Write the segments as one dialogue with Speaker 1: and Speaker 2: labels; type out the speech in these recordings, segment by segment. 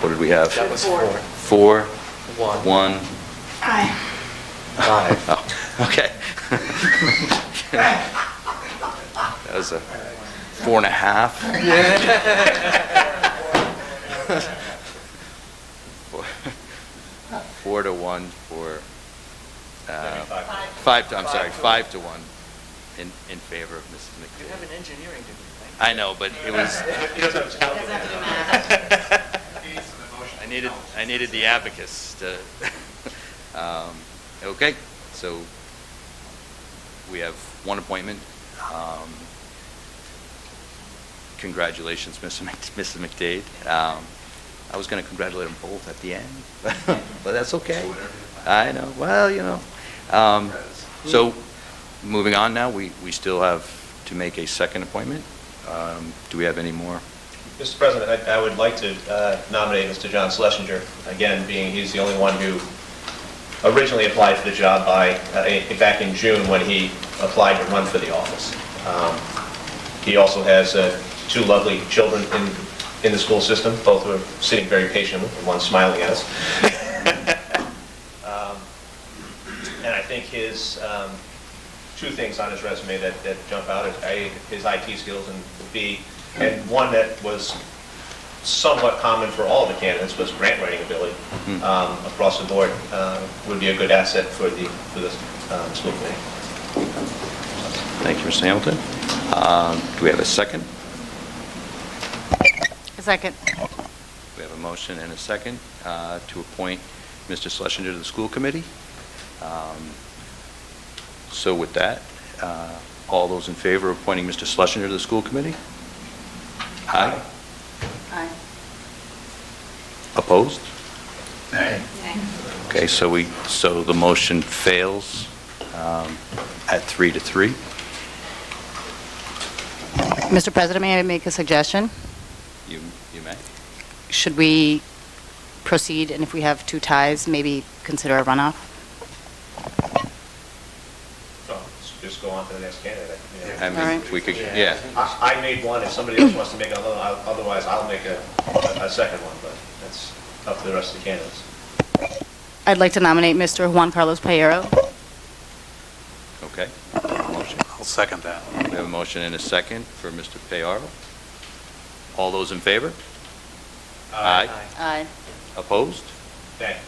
Speaker 1: What did we have?
Speaker 2: That was four,
Speaker 1: Four,
Speaker 2: one,
Speaker 1: one,
Speaker 3: Aye.
Speaker 2: five.
Speaker 1: oh, okay. That was a four and a half. Four- Four to one for, uh, five, to- I'm sorry, five to one in, in favor of Mrs.
Speaker 2: You have an
Speaker 1: McDade.
Speaker 2: engineering degree,
Speaker 1: I know, but it was, I needed, I needed the abacus to, um, okay, so we have one appointment. Um, Congratulations, Mr. Mc- Mrs. McDade. Um, I was going to congratulate them both at the end, but that's okay. I know, well, you know. Um, So, moving on now, we, we still have to make a second appointment. Um, Do we have any more?
Speaker 4: Mr. President, I I would like to uh, nominate Mr. John Schlesinger, again, being he's the only one who originally applied for the job by, uh, in- back in June when he applied to run for the office. Um, He also has uh, two lovely children in in the school system, both who are sitting very patiently, and one smiling at us. Um, And I think his, um, two things on his resume that, that jump out, is A, his IT skills, and B, and one that was somewhat common for all the candidates was grant writing ability um, across the board, uh, would be a good asset for the, for the um, school committee.
Speaker 1: Thank you, Mr. Hamilton. Um, Do we have a second?
Speaker 5: Second.
Speaker 1: We have a motion and a second uh, to appoint Mr. Schlesinger to the school committee. Um, So with that, uh, all those in favor of appointing Mr. Schlesinger to the school committee? Aye.
Speaker 3: Aye.
Speaker 1: Opposed?
Speaker 3: Nay.
Speaker 1: Okay, so we, so the motion fails um, at three to three.
Speaker 5: Mr. President, may I make a suggestion?
Speaker 1: You you may.
Speaker 5: Should we proceed, and if we have two ties, maybe consider a runoff?
Speaker 4: So, let's Just go on to the next candidate. you know.
Speaker 1: I
Speaker 5: All
Speaker 1: mean,
Speaker 5: right.
Speaker 1: we could, yeah.
Speaker 4: I I made one, if somebody else wants to make another, I'll- otherwise I'll make a, a second one, but that's up to the rest of the candidates.
Speaker 5: I'd like to nominate Mr. Juan Carlos Payero.
Speaker 1: Okay. Motion.
Speaker 6: I'll second that.
Speaker 1: We have a motion and a second for Mr. Payaro. All those in favor? Aye.
Speaker 5: Aye.
Speaker 1: Opposed?
Speaker 4: Thank you.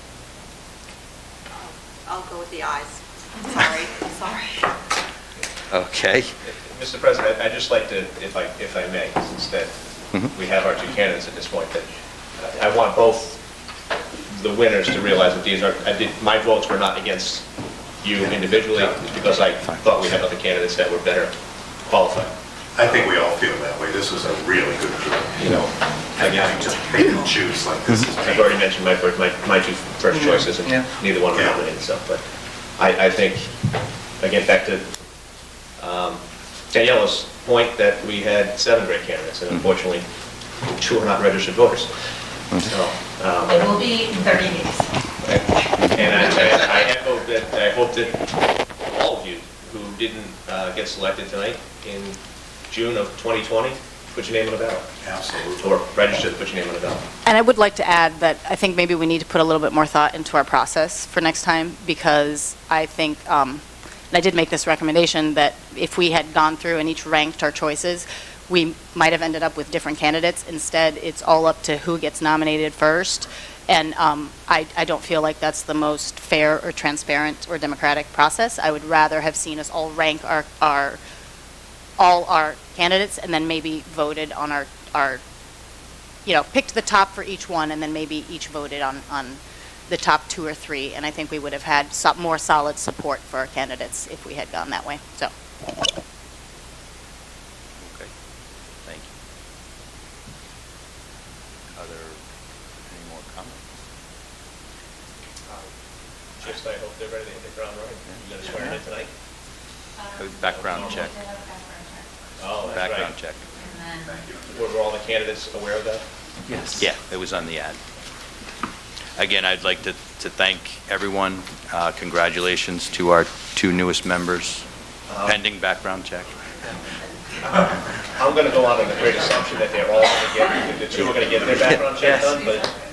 Speaker 3: I'll go with the ayes. I'm sorry, I'm sorry.
Speaker 1: Okay.
Speaker 4: Mr. President, I'd just like to, if I, if I may, since that
Speaker 1: Mhm.
Speaker 4: we have our two candidates at this point, that I want both the winners to realize that these are, I did, my votes were not against you individually, it's because I thought we had other candidates that were better qualified.
Speaker 7: I think we all feel that way. This was a really good group, you know, and having to pick and choose like this is
Speaker 6: Mm-hmm.
Speaker 4: I've already mentioned my, fir- my, my two first choices, and
Speaker 2: Yeah.
Speaker 4: neither one were
Speaker 7: Yeah.
Speaker 4: nominated, so, but I, I think, again, back to um, Daniela's point that we had seven great candidates,
Speaker 7: Mm-hmm.
Speaker 4: and unfortunately, two are not registered voters.
Speaker 7: Mm-hmm.
Speaker 4: So, um,
Speaker 8: It will be in 30 days.
Speaker 4: and I, I I echo that, I hope that all of you who didn't uh, get selected tonight in June of 2020, put your name on the ballot,
Speaker 7: absolutely.
Speaker 4: or registered, put your name on the ballot.
Speaker 5: And I would like to add that I think maybe we need to put a little bit more thought into our process for next time, because I think, um, and I did make this recommendation, that if we had gone through and each ranked our choices, we might have ended up with different candidates. Instead, it's all up to who gets nominated first, and um, I I don't feel like that's the most fair or transparent or democratic process. I would rather have seen us all rank our our, all our candidates, and then maybe voted on our our you know, picked the top for each one, and then maybe each voted on, on the top two or three, and I think we would have had so- more solid support for our candidates if we had gone that way, so.
Speaker 1: Okay, thank you. Are there any more comments?
Speaker 4: Um, Just, I hope they're ready to hit the ground running. You gonna swear in tonight?
Speaker 1: Background check,
Speaker 4: Oh, that's right.
Speaker 1: background check.
Speaker 4: Were were all the candidates aware of that?
Speaker 2: Yes.
Speaker 1: Yeah, it was on the ad. Again, I'd like to, to thank everyone. Uh, Congratulations to our two newest members,
Speaker 4: Uh,
Speaker 1: pending background check.
Speaker 4: I'm going to go out on the great assumption that they're all going to get, the two are going to get their background check done, but